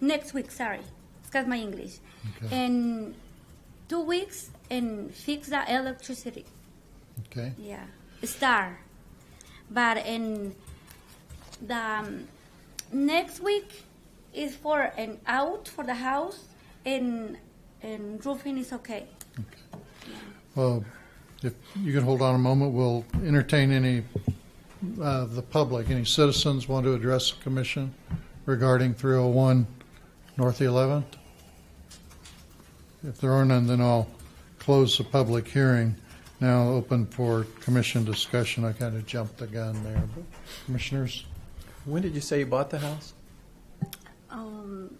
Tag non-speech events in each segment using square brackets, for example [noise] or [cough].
next week, sorry. Excuse my English. Okay. In two weeks and fix the electricity. Okay, Yeah. Star. But in the um, next week is for an out for the house and and roofing is okay. well, if you can hold on a moment, we'll entertain any, uh, the public, any citizens want to address the commission regarding 301 North 11th? If there are none, then I'll close the public hearing. Now open for commission discussion. I kind of jumped the gun there, but commissioners? When did you say you bought the house? Um,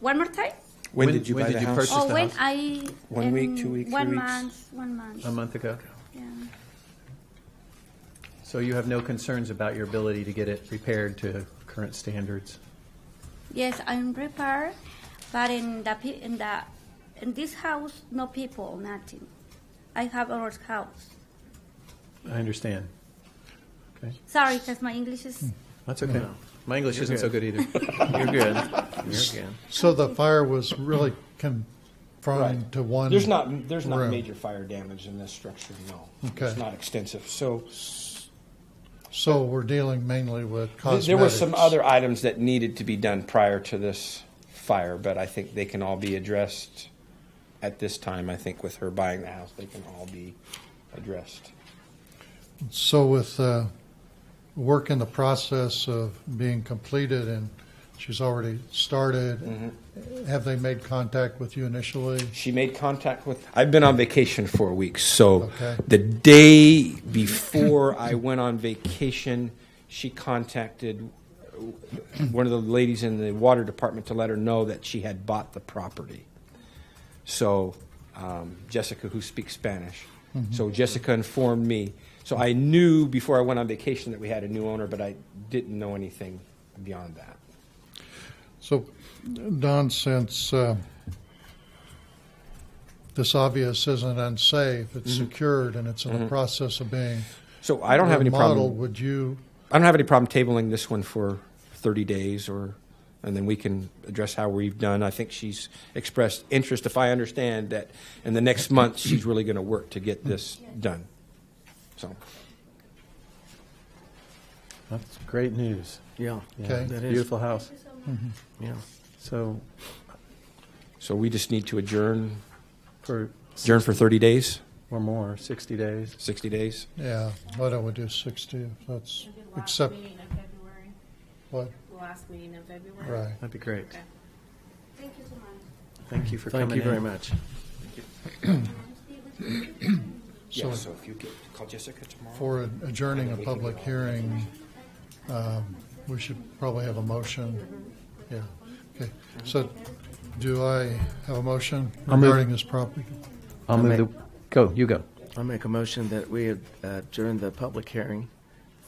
one more time? When, did you when buy did the you house? purchase- Just Oh, the when house. I One in week, two week, three one weeks? month, one month. A month ago. yeah. So you have no concerns about your ability to get it repaired to current standards? Yes, I'm prepared, but in the pe- in the in this house, no people, nothing. I have our house. I understand. Okay, Sorry, because my English is that's okay. My English isn't so good either. [laughs] You're good. You're good. So the fire was really confined Right. to one? There's not, there's not room. major fire damage in this structure, no. Okay. It's not extensive. So So we're dealing mainly with th- cosmetics? there were some other items that needed to be done prior to this fire, but I think they can all be addressed at this time. I think with her buying the house, they can all be addressed. So with uh, work in the process of being completed and she's already started, Mm-hmm. have they made contact with you initially? She made contact with, I've been on vacation for a week, so Okay. the day before I went on vacation, she contacted one of the ladies in the water department to let her know that she had bought the property. So um, Jessica, who speaks Spanish, so Jessica informed me. So I knew before I went on vacation that we had a new owner, but I didn't know anything beyond that. So, Don, since uh, this obvious isn't unsafe, it's secured and it's in the process of being So Mm-hmm. I don't have any problem. remodeled, would you, I don't have any problem tabling this one for 30 days or, and then we can address how we've done. I think she's expressed interest, if I understand, that in the next month, she's really going to work to get this done. So, That's great news. yeah. Okay. That is. Beautiful house. Yeah. Mm-hmm. So so we just need to adjourn, for, adjourn for 30 days, or more, 60 days. 60 days? yeah, why don't we do 60? If That's, It'll be the last except, meeting in February, what, the last meeting in February. right. That'd be great. Okay. Thank you so much. Thank you for coming Thank in. you very much. Yeah, So- so if you could call Jessica tomorrow. For adjourning a public hearing, um, we should probably have a motion. Yeah, okay. So do I have a motion I'll move. regarding this property? I'll move the, go, you go. I make a motion that we adjourn the public hearing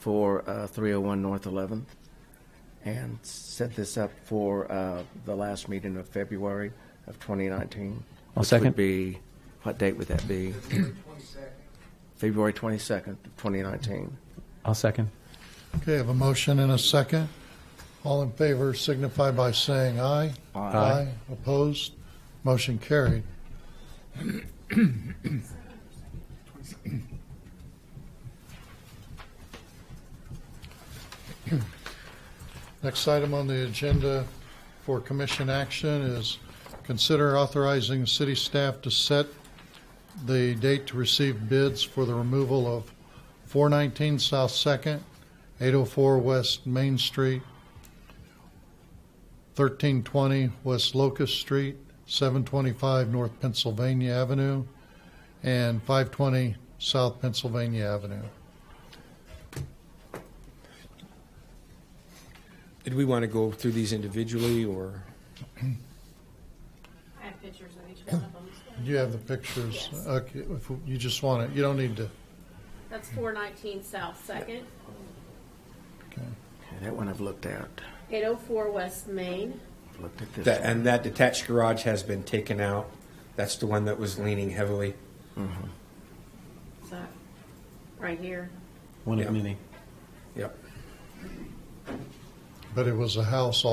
for uh, 301 North 11th and set this up for uh, the last meeting of February of 2019. I'll which second. Would be, what date would that be? February 22nd, 2019. I'll second. Okay, I have a motion and a second. All in favor signify by saying aye. Opposed? Motion carried. Next item on the agenda for commission action is consider authorizing city staff to set the date to receive bids for the removal of 419 South Second, 804 West Main Street, 1320 West Locust Street, 725 North Pennsylvania Avenue, and 520 South Pennsylvania Avenue. Did we want to go through these individually or? I have pictures of each one of them. Do you have the pictures? Yes. Okay, if you just want it, you don't need to. That's four nineteen South Second, Okay. Okay, That one I've looked at, eight oh four West Main. looked at this. That, one. and that detached garage has been taken out. That's the one that was leaning heavily. Is that right here? One Yeah. of many. Yep. But it was a house all